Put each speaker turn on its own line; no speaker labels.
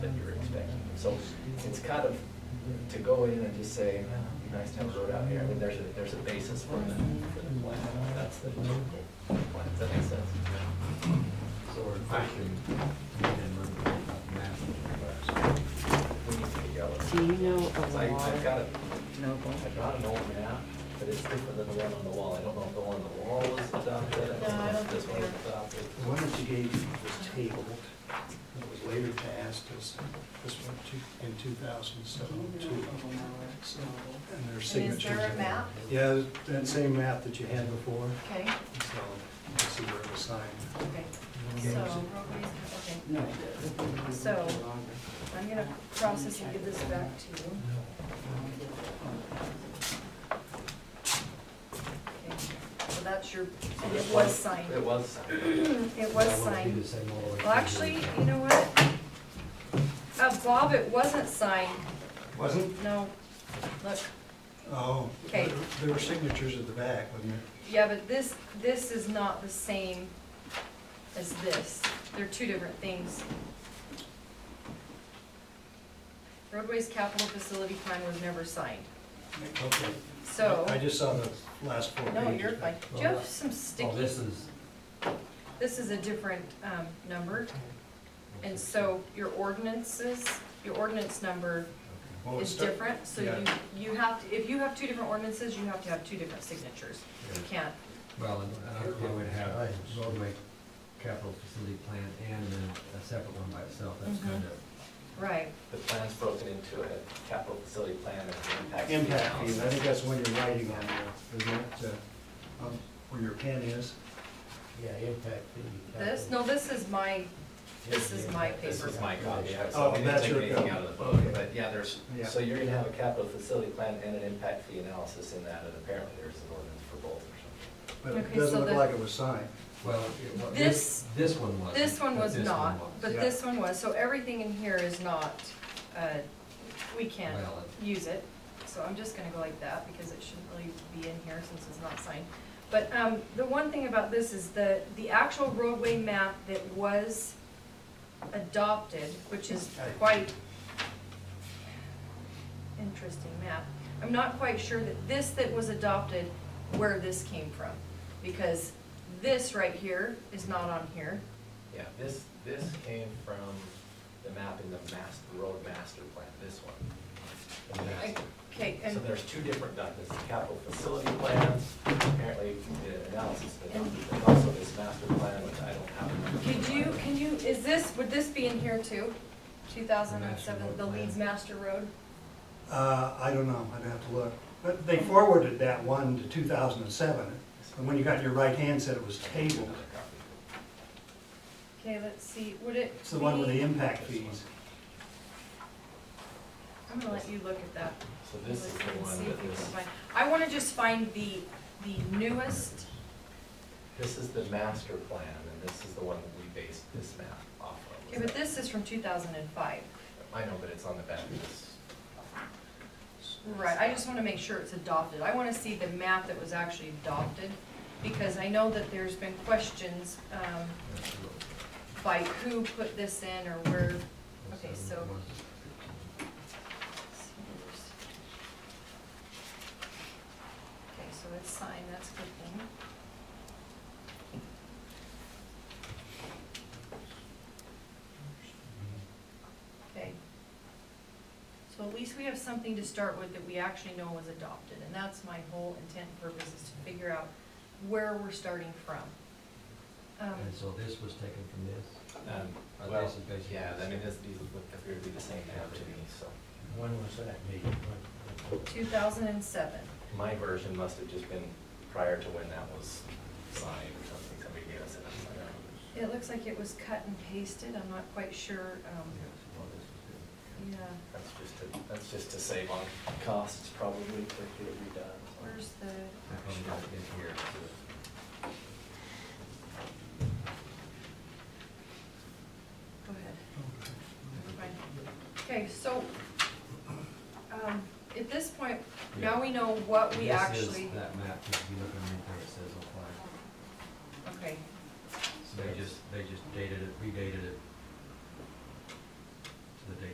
So it's kind of, to go in and just say, "Ah, it'd be nice to have a road out here, I mean, there's a, there's a basis for the, for the plan, that's the, plan. does that make sense?
So we're fishing
We need to figure out.
Do you know
So I,
a
I've got
law
a,
noble?
I've got an old map, but it's different than the one on the wall, I don't know if the one on the wall was adopted, I
No, I
don't know
don't
if this
think
one was
they're-
adopted.
The one that you gave was tabled, and it was later passed as this one two- in two thousand seven two. And there's
And
signatures.
is there a
in
map?
Yeah, that same map that you had before,
Okay,
so you can see where it was signed.
okay. So, okay,
No.
so I'm gonna process and give this back to you. Okay. So that's your, and it was signed.
It was signed.
It was signed. Well, actually, you know what? Uh, Bob, it wasn't signed.
Wasn't?
No, look,
Oh.
Okay.
there- There were signatures at the back, wasn't there?
yeah, but this, this is not the same as this. They're two different things. Roadways capital facility plan was never signed,
Okay.
so.
I just saw the last four pages.
No, you're fine. Do you have some sticky?
Oh, this is.
This is a different um, number, and so your ordinances, your ordinance number
Well, it
is
start-
different, so
Oh, yeah.
you, you have, to if you have two different ordinances, you have to have two different signatures. You can't,
Well, and uh, I I would have roadway capital facility plan and then a separate one by itself, that's
Mhm.
kind of.
right,
The plan's broken into a capital facility plan and the impact. fees
Impact fees, I
analysis.
think that's when you're writing on there, isn't it, uh, um, where your pen is?
Yeah, impact fee.
this, no, this is my, this is my
This
paper.
is my copy, I-
Oh,
so I didn't
that's
take
your
anything
copy.
out of the book, but yeah, there's,
Yeah.
so you're gonna have a capital facility plan and an impact fee analysis in that, and apparently there's an ordinance for both or something.
But it
Okay, so
doesn't look
the-
like it was signed.
Well, it wa-
This-
this, this one was.
This one was not, but
Yeah.
this one was, so everything in here is not, uh, we can't
Valid.
use it. So I'm just gonna go like that, because it shouldn't really be in here since it's not signed. But, um, the one thing about this is the, the actual roadway map that was adopted, which is quite interesting map. I'm not quite sure that this that was adopted, where this came from, because this right here is not on here.
Yeah, this, this came from the map in the master, road master plan, this one. The master.
Okay, and,
So there's two different documents, the capital facility plans, apparently the analysis, but and also this master plan, which I don't have.
could you, can you, is this, would this be in here too? Two thousand and
Master
seven,
Road
the Leeds
plan.
Master Road?
Uh, I don't know, I'd have to look. But they forwarded that one to two thousand and seven, and when you got your right hand said it was tabled.
Another copy.
Okay, let's see, would it
It's the one with the
be-
impact fees.
I'm gonna let you look at that.
So this is the
and
one
see if
that
you can
this.
find- I wanna just find the, the newest,
This is the master plan, and this is the one that we based this map off of.
okay, but this is from two thousand and five.
I know, but it's on the back of this.
Right, I just wanna make sure it's adopted. I wanna see the map that was actually adopted, because I know that there's been questions, um, by who put this in or where. Okay, so- Okay, so it's signed, that's a good thing. Okay. So at least we have something to start with that we actually know was adopted, and that's my whole intent and purpose is to figure out where we're starting from. Um,
And so this was taken from this?
Um,
Are they
well,
some basic-
yeah, I mean, this, these would appear to be the same map to me, so.
When was that meeting? When- when-
two thousand and seven.
My version must have just been prior to when that was signed or something, somebody gave us it. I don't know.
It looks like it was cut and pasted, I'm not quite sure,
Yeah,
um,
so all this was
yeah,
That's just to, that's just to save on costs probably, to get it redone.
where's the,
good. I probably got it in here.
go ahead, Never mind. Okay, so, um, at this point, now we know what we
This is
actually,
that map, if you look underneath there, it says apply.
okay,
So they just, they just dated it, redated it